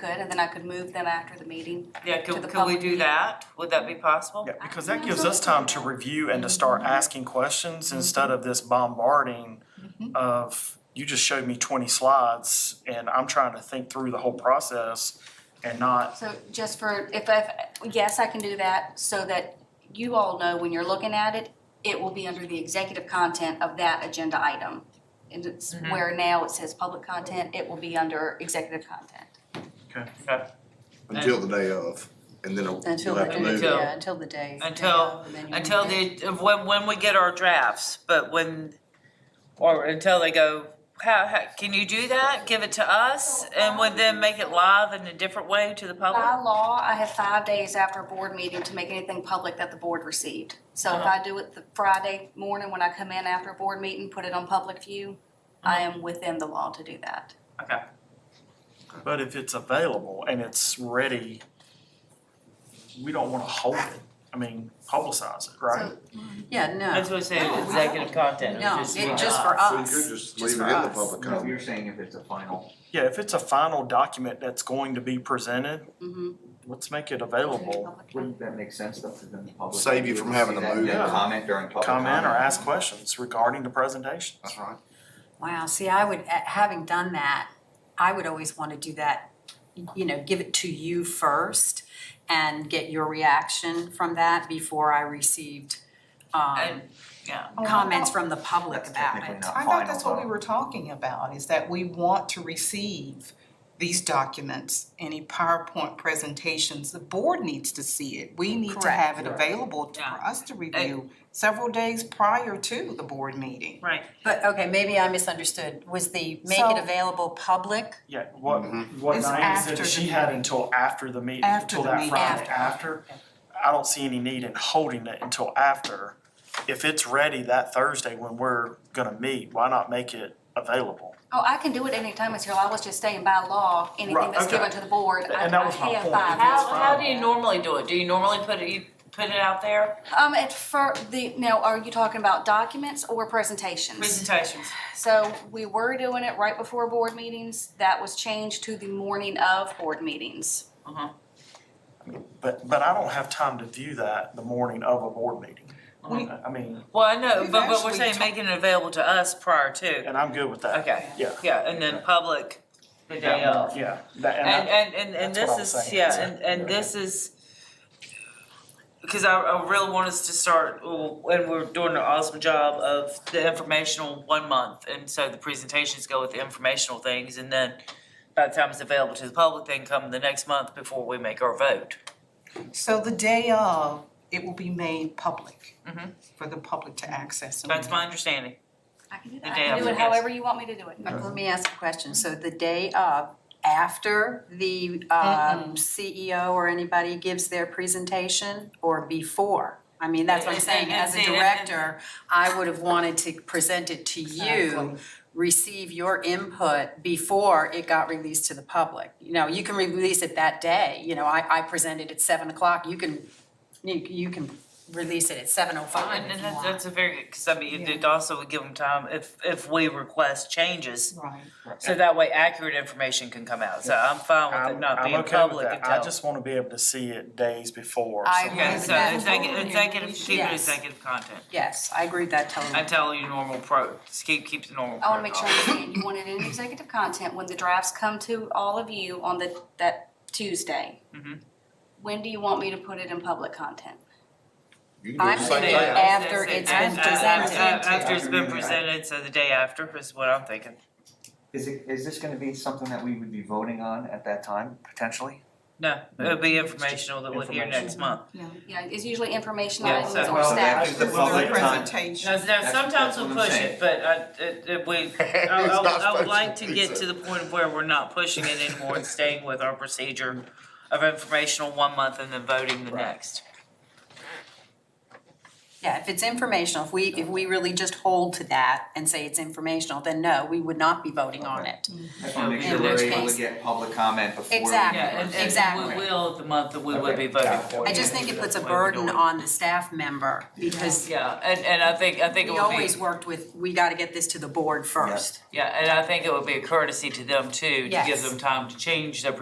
Good, and then I could move them after the meeting. Yeah, To could, the could we public do meeting. that? Would that be possible? Yeah, because that gives us time to review and to start asking questions instead of this bombarding Mm-hmm. of, you just showed me twenty slides and I'm trying to think through the whole process and not, So just for, if, if, yes, I can do that, so that you all know when you're looking at it, it will be under the executive content of that agenda item. And it's Mhm. where now it says public content, it will be under executive content. Until the day of, and then you'll Until the have to day, move. Until- yeah, until the day. Until- Until the, when, when we get our drafts, but when, or until they go, how, how, can you do that? Give it to us? And would then make it live in a different way to the By public? law, I have five days after a board meeting to make anything public that the board received. So if Uh-huh. I do it the Friday morning when I come in after a board meeting, put it on public view, Uh-huh. I am within the law to do that. Okay. but if it's available and it's ready, we don't wanna hold it. I mean, publicize it, right? Yeah, That's no, what I said, executive content. no, it live. just for us. So you could just Just leave it in for the us. public No, comment. you're saying if it's a final. Yeah, if it's a final document that's going to be presented, Mhm. let's make it available. Wouldn't that make sense though, because then the public. Save you from having to That- move that it. Comment during public comment. Comment or ask questions regarding the presentations. That's right. Wow, see, I would, eh, having done that, I would always want to do that, you know, give it to you first and get your reaction from that before I received um And- yeah. Oh, I comments thought- from the public That's about technically it. not I thought final, that's what we though. were talking about, is that we want to receive these documents, any PowerPoint presentations, the board needs to see it. We need to Correct. have it available to- Yeah. for us to review several days prior to the board meeting. Right. But okay, maybe I misunderstood. Was the make So- it available public? Yeah, what, what It's Diana after said, the she had until after the meeting, After until the that meeting. Friday After. after. I don't see any need in holding it until after. If it's ready that Thursday when we're gonna meet, why not make it available? Oh, I can do it anytime it's here, I was just saying by law, anything Right, that's okay. given to the board, I I And that was my have point. five. How- How, It's how how do do you normally do it? Do you normally put it, you put it out there? Um, at fir, the, now, are you talking about documents or presentations? Presentations. So we were doing it right before board meetings, that was changed to the morning of board meetings. But, but I don't have time to view that the morning of a board meeting. We- I mean, Well, I know, We've but, but we're actually saying talked- making it available to us prior to. and I'm good with that. Okay. Yeah. Yeah, and then public the day That- of. Yeah, that, and I- And, and, and, and That's what this I'm is, saying. yeah, and, and this is, because I, I really want us to start, and we're doing an awesome job of the informational one month. And so the presentations go with the informational things, and then by the time it's available to the public, then come the next month before we make our vote. So the day of, it will be made public Mhm. for the public to access. and That's read. my understanding. I can do The that. I day can do after, it yes. however you want me to do it. But let me ask a question. So the day of, after the um CEO or anybody gives their presentation or before? I mean, that's what I'm And- saying, and- as a and- and- director, I would have wanted to present it to you, Exactly. receive your input before it got released to the public. You know, you can release it that day, you know, I I presented at seven o'clock, you can, you you can release it at seven oh five And if and you that's, want. that's a very, because I mean, it Yeah. it also would give them time if, if we request changes. Right. So that way accurate information can come out. So I'm fine with it I'm, not I'm being okay with public that. until. I just wanna be able to see it days before. I so- agree. Okay, so Yeah. executive, executive, keep it Yes. executive content. Yes, I agree with that totally. I tell you normal pro, just keep, keep the normal I wanna make sure I protocol. understand, you want it in executive content when the drafts come to all of you on the, that Tuesday. Mhm. When do you want me to put it in public content? You can do I'm the same saying thing. that- after it's After- been after- presented. After it's been presented, so the day after is what I'm thinking. Is it, is this gonna be something that we would be voting on at that time, potentially? No, it'll be informational that we'll hear next month. Yeah, it's usually information Yeah, items so- or Well, that staff. is the With public the time. presentation. Now, now, That's- sometimes that's we'll what I'm push it, saying. but I, it, it, we, I, It's I, not would- I would supposed like to be get so. to the point of where we're not pushing it anymore and staying with our procedure of informational one month and then voting the next. Yeah, if it's informational, if we, if we really just hold to that and say it's informational, then no, we would not be voting on it. Just wanna make In sure which we're able case- to get public comment before. we- Exactly. Yeah, and, and we Exactly. will the month that we would be voting for. I just think it puts a burden on the staff member because Yeah, and, and I think, I think it we would be, always worked with, we gotta get this to the board first. yeah, and I think it would be a courtesy to them too, to give Yes. them time to change their